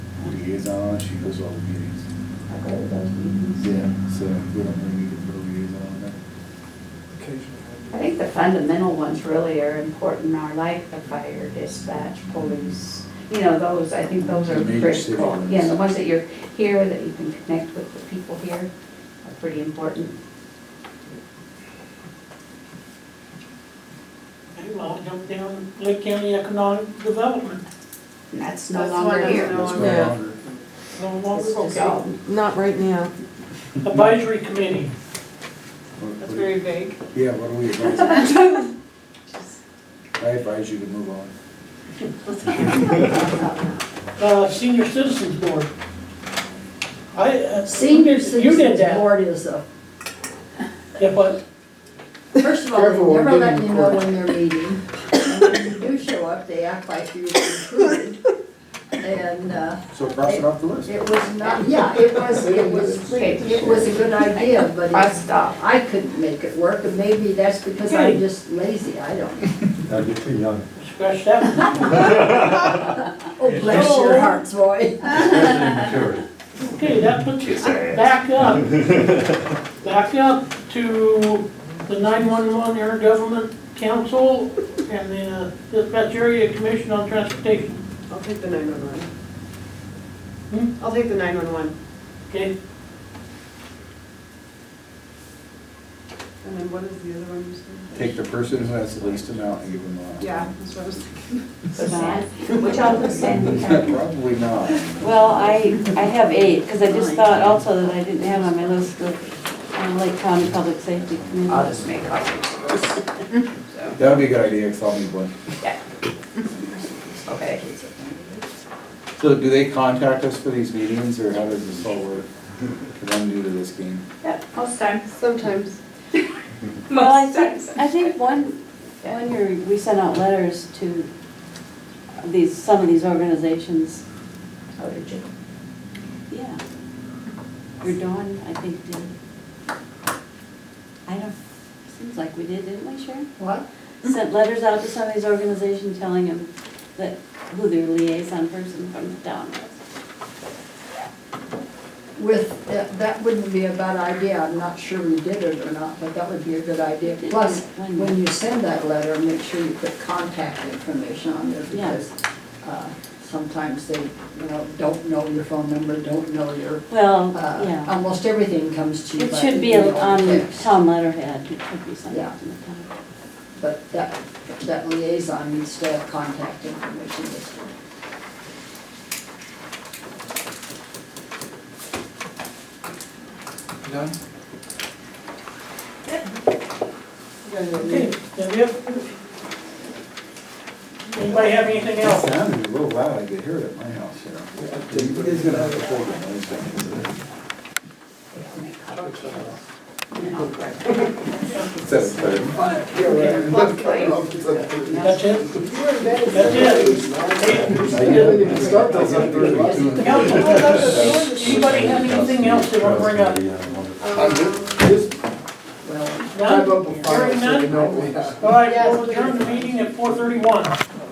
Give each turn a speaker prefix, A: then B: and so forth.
A: liaison, she goes to all the meetings.
B: I go to those meetings.
A: Yeah, so we don't really need to put a liaison there.
B: I
C: Occasionally.
B: think the fundamental ones really are important are like the fire, dispatch, police, you know, those, I think those are
A: The major city
B: critical.
A: ones.
B: Yeah, the ones that you're here, that you can connect with the people here are pretty important.
D: Hey, well, I'll jump down, Lake County Economic Development,
B: That's no
E: That's one
B: longer
E: that's
B: here.
E: no-
A: That's
F: Yeah.
A: no longer.
D: no
B: It's
D: longer, okay.
B: dissolved.
F: Not right now.
D: Advisory Committee,
A: What-
E: That's
A: what-
E: very vague.
A: Yeah, what do we advise? I advise you to move on.
D: uh, Senior Citizens Board. I, uh,
G: Senior
D: You did
G: Citizens
D: that,
G: Board is a,
D: yeah, but
G: first of all,
A: Careful,
G: they
A: we're
G: never let
A: getting
G: you know
A: recorded.
G: when they're meeting. And when you do show up, they act like you were included. And, uh,
A: So cross it off the list.
G: it was not, yeah, it was, it was, it was a good idea, but
B: I
G: it's-
B: stopped.
G: I couldn't make it work, and maybe that's because I'm just lazy, I don't. know.
H: No, you're too young.
D: scratch that one.
G: Oh, bless your hearts, boy.
D: Okay, that puts you back up, back up to the nine-one-one intergovernment council and the uh, dispatch area commission on transportation,
E: I'll take the nine-one-one.
D: Hmm?
E: I'll take the nine-one-one.
D: okay?
E: And then what is the other one you said?
A: Take the person who has the least amount and give them a.
E: Yeah, that's what I was thinking.
B: Suzanne, Which I would send you.
A: Probably not.
I: Well, I, I have eight, because I just thought also that I didn't have on my list the um, Lake County Public Safety
B: I'll
I: Committee.
B: just make copies of those.
A: That would be a good idea, because I'll need one.
B: Okay.
A: So do they contact us for these meetings, or how does this all work? Because I'm new to this game.
B: Yeah, most times.
E: Sometimes.
I: Well, I
B: Most
I: think,
B: times.
I: I think one, one year, we sent out letters to these, some of these organizations.
B: Oh, did you?
I: Yeah. Your Dawn, I think, did. I don't, seems like we did, didn't we, Sharon?
G: What?
I: Sent letters out to some of these organizations telling them that, who their liaison person from the town was.
G: With, that that wouldn't be a bad idea, I'm not sure we did it or not, but that would be a good idea. Plus, when you send that letter, make sure you put contact information on there,
I: Yeah.
G: because uh, sometimes they, you know, don't know your phone number, don't know your,
I: Well,
G: uh,
I: yeah,
G: almost everything comes to you.
I: it
G: by
I: should be
G: email or
I: on
G: text.
I: town letterhead, it should be something
G: Yeah.
I: on the
G: But that, that liaison needs to have contact information listed.
A: No?
E: You guys are-
D: Okay, then we have- Anybody have anything else?
A: It sounded a little loud, I could hear it at my house, you know. You guys gonna have to hold it, I understand. That's better.
D: That's it? That's it.
A: I didn't start those up there.
D: Council, anybody have anything else they want to bring up?
G: Well,
D: None? Hearing none? All right, we'll adjourn the meeting at four thirty-one.